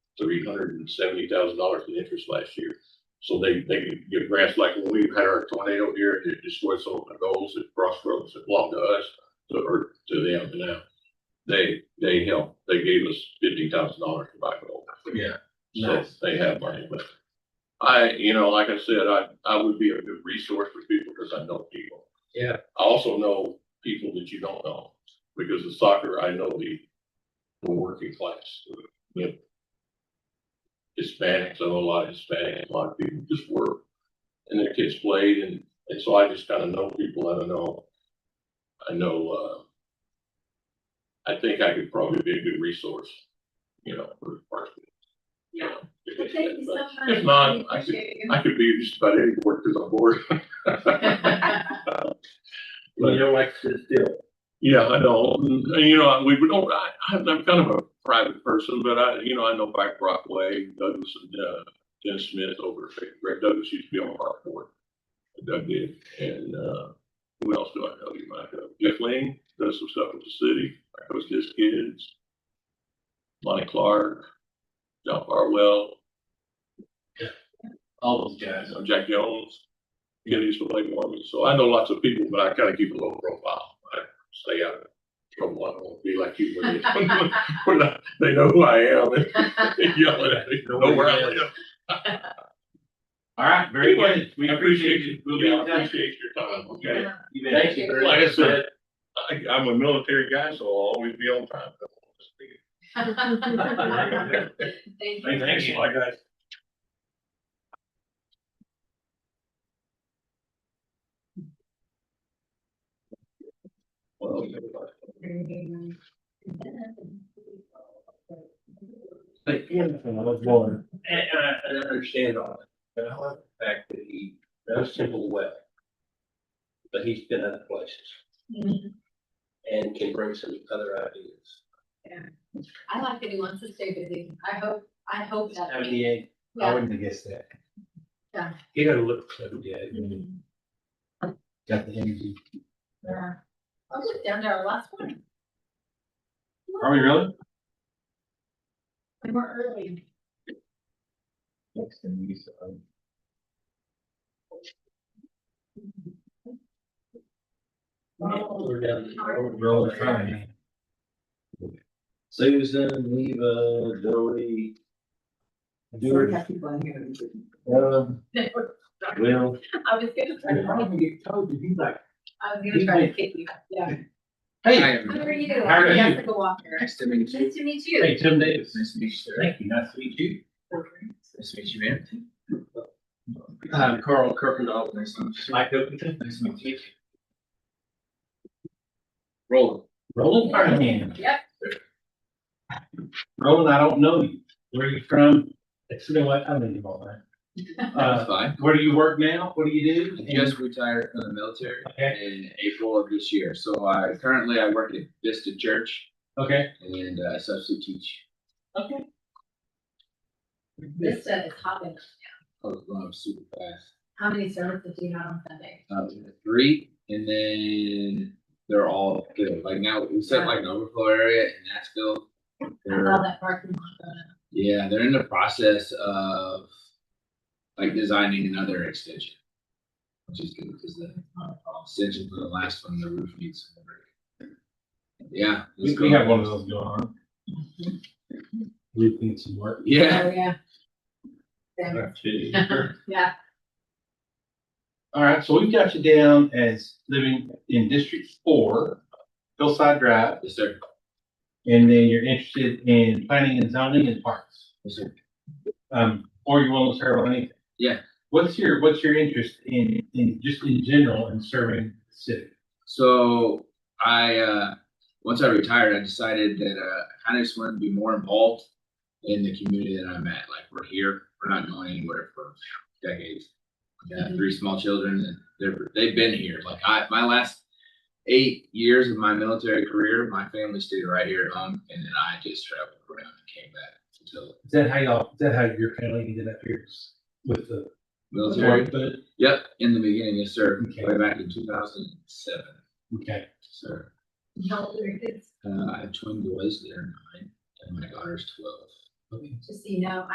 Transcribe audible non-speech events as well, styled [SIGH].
three hundred and seventy thousand dollars in interest last year. So they, they can give grants like when we had our tornado here, it destroyed some of the goals at crossroads that belonged to us, to, or to them now. They, they helped, they gave us fifty thousand dollars to buy gold. Yeah. So Nice. they have money, but I, you know, like I said, I, I would be a good resource for people because I know people. Yeah. I also know people that you don't know, because of soccer, I know the, the working class, the Hispanics, I know a lot of Hispanics, a lot of people just work. And their kids played and, and so I just kind of know people, I don't know. I know, uh, I think I could probably be a good resource, you know, for Parkville. you know, if Well, it's- Thank you so but much. If not, We I could, appreciate [LAUGHS] you. I could be just about any work because I'm [LAUGHS] bored. You know, like, sit still. Yeah, I know, and and, you know, we don't, I, I'm I'm kind of a private person, but I, you know, I know Mike Brockway, Douglas, and, uh, Jen Smith over, at Greg Douglas used to be on our board. Doug did, and, uh, who else do I know you might know? Jeff Ling does some stuff with the city, I coach his kids. Lonnie Clark, John Farwell, All those guys. uh, Jack Jones, he used to play for me, so I know lots of people, but I kind of keep a low profile. I stay out of trouble, I don't want to be like you when you- [LAUGHS] when I- they know who I am, and they yell at me, know where I live. All right, very Anyway, good. We appreciate you. We'll be Yeah, I in touch. appreciate your time, okay? Yeah. You bet. Thank you. Very Like I good. said, I, I'm a military guy, so I'll always be on time. Thank you. [LAUGHS] Thank you. Like I Well, Thank you. And, and I, and I understand all that, but I like the fact that he knows Temple well. But he's been other places Mhm. and can bring some other ideas. I like that he wants to stay busy. I hope, I hope that. Seventy-eight, I Yeah. wouldn't have guessed that. you gotta look for seventy-eight. Mhm. Got the energy. Yeah. I was down there last morning. Are we really? We were early. Next thing you saw. Oh, Roll the front. Susan, Eva, Joey. George, um, they were- Will, I was gonna try to, I get told, he's like. was gonna try to kick you. Yeah. Hey. How are you? How are I'm you? Jessica Walker. Nice to meet Nice to meet you. Hey, Tim Davis. Nice to meet you. Thank you, nice to meet you. Nice to meet you, man. Um, Carl Kirkendall, Uh, Nice to meet you. Mike Oakington. Nice to meet you. Roll. Roland, all right. Yep. Roland, I don't know you. Where are you from? It's been what, I don't even know, man. That's Uh, fine. where do you work now? What do you do? Just retired from the military Okay, in April of this year. So I currently I work at Vista Church okay. and uh, substitute teach. Okay. This uh, is hot enough. I was going super fast. How many services do you have on Sunday? uh, three, and then they're all filled. Like now, we set like an overflow area in Nashville. I They're, saw that parking lot. going up. yeah, they're in the process of like designing another extension. Which is good because the uh, extension for the last one, the roof needs some work. Yeah. let's go. one of those going on. We think some work. Yeah. Oh, yeah. Yeah. Yeah. All right, so we've got you down as living in District Four, Hillside Drive, Yes, sir. and then you're interested in planning and zoning and parks. Yes, sir. um, or you want to serve on anything. Yeah. What's your, what's your interest in, in, just in general in serving the city? So I, uh, once I retired, I decided that, uh, I kind of just wanted to be more involved in the community that I'm at. Like, we're here, we're not going anywhere for decades. I got three small children and they're, they've been here. Like I, my last eight years of my military career, my family stayed right here at home and then I just traveled around and came back until Is that how y'all, is that how your family ended up here with the? military. But- Yep, in the beginning, yes, sir. Okay. Way back in two thousand and seven, Okay, sir. How old are your kids? Uh, I have twin boys, they're nine, and my daughter's twelve. just so you know,